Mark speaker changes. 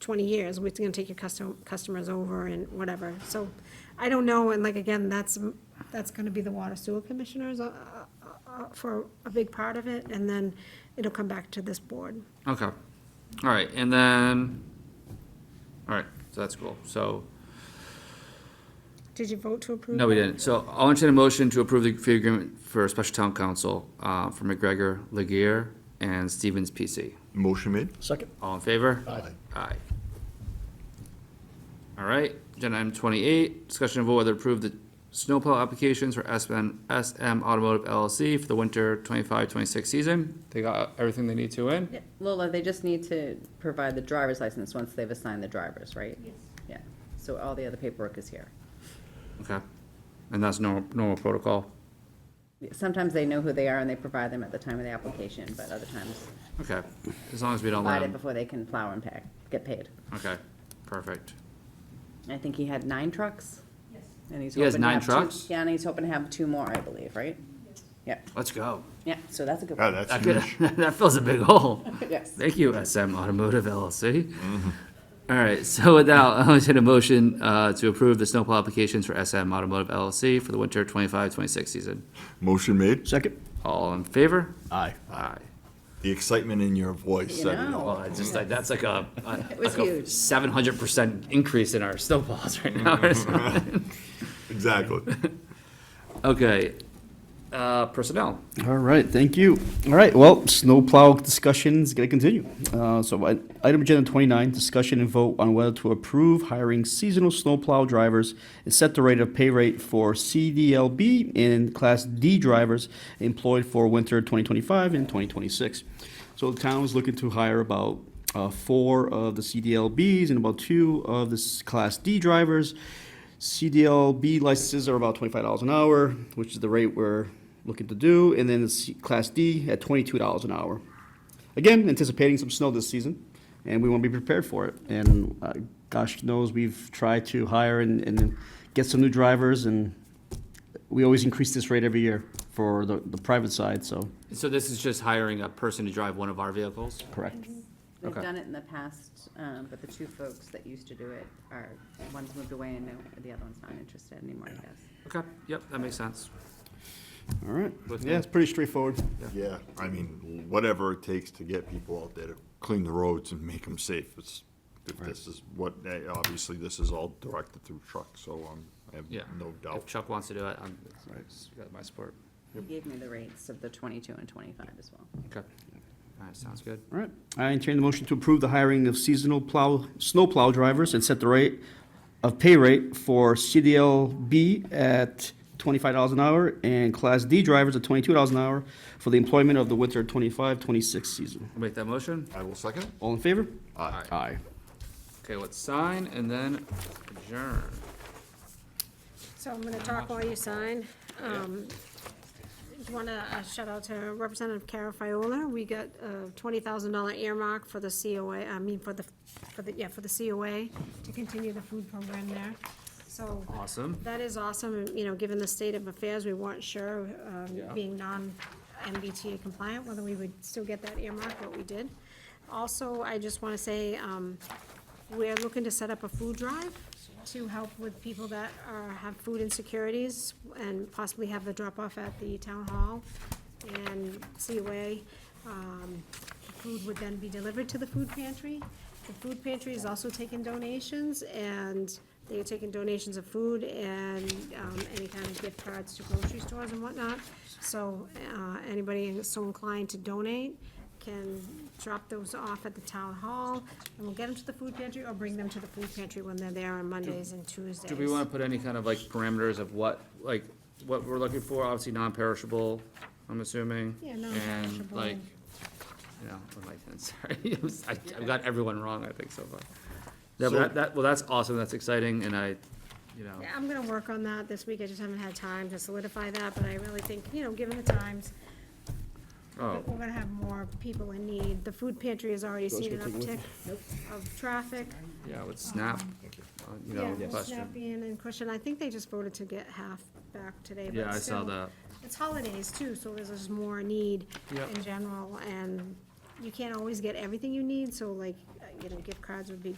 Speaker 1: twenty years, we're gonna take your custom, customers over and whatever, so, I don't know, and like, again, that's, that's gonna be the water sewer commissioners, uh, uh, uh, for a big part of it, and then it'll come back to this board.
Speaker 2: Okay, all right, and then, all right, so that's cool, so,
Speaker 1: Did you vote to approve?
Speaker 2: no, we
Speaker 1: that?
Speaker 2: didn't, so I'll entertain a motion to approve the fee agreement for special town council, uh, for McGregor, Legear, and Stevens PC.
Speaker 3: Motion made.
Speaker 4: Second.
Speaker 2: All in favor?
Speaker 4: Aye.
Speaker 2: Aye. All right, agenda item twenty-eight, discussion of vote whether to approve the snowplow applications for SM, SM Automotive LLC for the winter 25-26 season. They got everything they need to in?
Speaker 5: Yeah, Lola, they just need to provide the driver's license once they've assigned the drivers, right?
Speaker 1: Yes.
Speaker 5: Yeah, so all the other paperwork is here.
Speaker 2: Okay, and that's normal, normal protocol?
Speaker 5: Sometimes they know who they are and they provide them at the time of the application, but other times
Speaker 2: Okay, as long as we don't let
Speaker 5: provide it
Speaker 2: them,
Speaker 5: before they can plow and pack, get paid.
Speaker 2: okay, perfect.
Speaker 5: I think he had nine trucks? Yes. And he's
Speaker 2: He has
Speaker 5: hoping to
Speaker 2: nine
Speaker 5: have two.
Speaker 2: trucks?
Speaker 5: Yeah, and he's hoping to have two more, I believe, right? Yeah,
Speaker 2: Let's go.
Speaker 5: yeah, so that's a good
Speaker 3: Yeah,
Speaker 5: one.
Speaker 3: Ah, that's
Speaker 2: That could,
Speaker 3: huge.
Speaker 2: that fills a big hole.
Speaker 5: Yes.
Speaker 2: Thank you, SM Automotive LLC. All right, so with that, I'll entertain a motion, uh, to approve the snowplow applications for SM Automotive LLC for the winter 25-26 season.
Speaker 3: Motion made.
Speaker 4: Second.
Speaker 2: All in favor?
Speaker 4: Aye.
Speaker 2: Aye.
Speaker 3: The excitement in your voice.
Speaker 5: You
Speaker 3: said it
Speaker 5: know.
Speaker 3: all.
Speaker 2: Well, it's just like, that's like a,
Speaker 5: Oh. It was huge.
Speaker 2: Seven hundred percent increase in our snowplows right now or something.
Speaker 3: Exactly.
Speaker 2: Okay, uh, personnel.
Speaker 4: All right, thank you. All right, well, snowplow discussion's gonna continue. Uh, so I- item agenda twenty-nine, discussion and vote on whether to approve hiring seasonal snowplow drivers and set the rate of pay rate for CDLB and Class D drivers employed for winter twenty twenty-five and twenty twenty-six. So the town is looking to hire about uh, four of the CDLBs and about two of the s- Class D drivers. CDLB licenses are about twenty-five dollars an hour, which is the rate we're looking to do, and then the C- Class D at twenty-two dollars an hour. Again, anticipating some snow this season, and we want to be prepared for it. And uh, gosh knows, we've tried to hire and, and get some new drivers, and we always increase this rate every year for the, the private side, so,
Speaker 2: So this is just hiring a person to drive one of our vehicles?
Speaker 4: correct.
Speaker 5: We've
Speaker 2: Okay.
Speaker 5: done it in the past, um, but the two folks that used to do it are, one's moved away and no- the other one's not interested anymore, I guess.
Speaker 2: Okay, yep, that makes sense.
Speaker 4: All right,
Speaker 2: With me.
Speaker 4: yeah, it's pretty straightforward.
Speaker 3: Yeah, I mean, whatever it takes to get people out there to clean the roads and make them safe. It's, if this is what, eh, obviously, this is all directed through trucks, so um, I have
Speaker 2: Yeah.
Speaker 3: no
Speaker 2: If
Speaker 3: doubt.
Speaker 2: Chuck wants to do it, I'm, it's got my support.
Speaker 5: He gave me the rates of the twenty-two and twenty-five as well.
Speaker 2: Okay. All right, sounds good.
Speaker 4: All right, I entertain the motion to approve the hiring of seasonal plow, snow plow drivers and set the rate of pay rate for CDLB at twenty-five dollars an hour and Class D drivers at twenty-two dollars an hour for the employment of the winter 25-26 season.
Speaker 2: I'll Make that motion.
Speaker 3: I will second it.
Speaker 4: All in favor?
Speaker 3: Aye.
Speaker 4: Aye.
Speaker 2: Okay, let's sign and then adjourn.
Speaker 1: So I'm gonna talk while you sign. Um, just wanna uh, shout out to Representative Cara Fiola. We got a twenty thousand dollar earmark for the COA, I mean, for the, for the, yeah, for the COA to continue the food program there. So
Speaker 2: Awesome.
Speaker 1: that is awesome, and, you know, given the state of affairs, we weren't sure, um,
Speaker 2: Yeah.
Speaker 1: being non-MBTA compliant, whether we would still get that earmark, but we did. Also, I just wanna say, um, we're looking to set up a food drive to help with people that are, have food insecurities and possibly have the drop-off at the town hall and COA. Um, the Food would then be delivered to the food pantry. The food pantry is also taking donations, and they are taking donations of food and um, any kind of gift cards to grocery stores and whatnot. So uh, anybody so inclined to donate can drop those off at the town hall, and we'll get them to the food pantry or bring them to the food pantry when they're there on Mondays and Tuesdays.
Speaker 2: Do we want to put any kind of like parameters of what, like, what we're looking for? Obviously non-perishable, I'm assuming.
Speaker 1: Yeah,
Speaker 2: And
Speaker 1: non-perishable.
Speaker 2: like, you know, what am I saying? sorry, I was- I, I've got everyone wrong, I think so far. No, but
Speaker 3: So-
Speaker 2: that, that, well, that's awesome, that's exciting, and I, you know,
Speaker 1: Yeah, I'm gonna work on that this week, I just haven't had time to solidify that, but I really think, you know, given the times,
Speaker 2: oh,
Speaker 1: we're gonna have more people in need. The food pantry has already seen an uptick of traffic.
Speaker 2: yeah, with Snap, uh, you know,
Speaker 1: Yeah,
Speaker 2: question.
Speaker 1: Snappian and Cushion, I think they just voted to get half back today,
Speaker 2: Yeah,
Speaker 1: but
Speaker 2: I saw
Speaker 1: still,
Speaker 2: that.
Speaker 1: It's holidays too, so there's just more need
Speaker 2: Yep.
Speaker 1: in general, and you can't always get everything you need, so like, uh, you know, gift cards would be